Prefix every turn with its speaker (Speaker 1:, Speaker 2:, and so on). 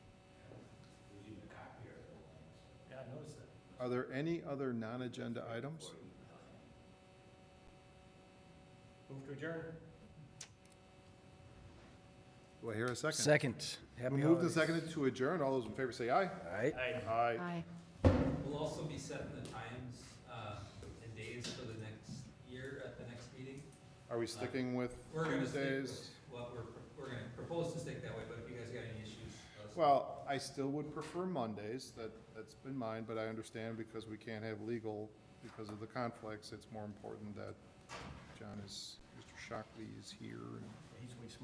Speaker 1: Are there any other non-agenda items?
Speaker 2: Move to adjourn.
Speaker 1: Do I hear a second?
Speaker 3: Second. Happy
Speaker 1: We moved and
Speaker 3: holidays.
Speaker 1: seconded to adjourn. All those in favor say aye.
Speaker 3: Aye.
Speaker 1: Aye.
Speaker 4: Aye.
Speaker 5: We'll also be setting the times uh, and days for the next year at the next meeting.
Speaker 1: Are we sticking with
Speaker 5: We're gonna stick
Speaker 1: Tuesdays?
Speaker 5: with What we're, we're gonna propose to stick that way, but if you guys got any issues, let us know.
Speaker 1: Well, I still would prefer Mondays. That, that's been mine, but I understand because we can't have legal because of the conflicts. It's more important that John is, Mr. Shockley is here and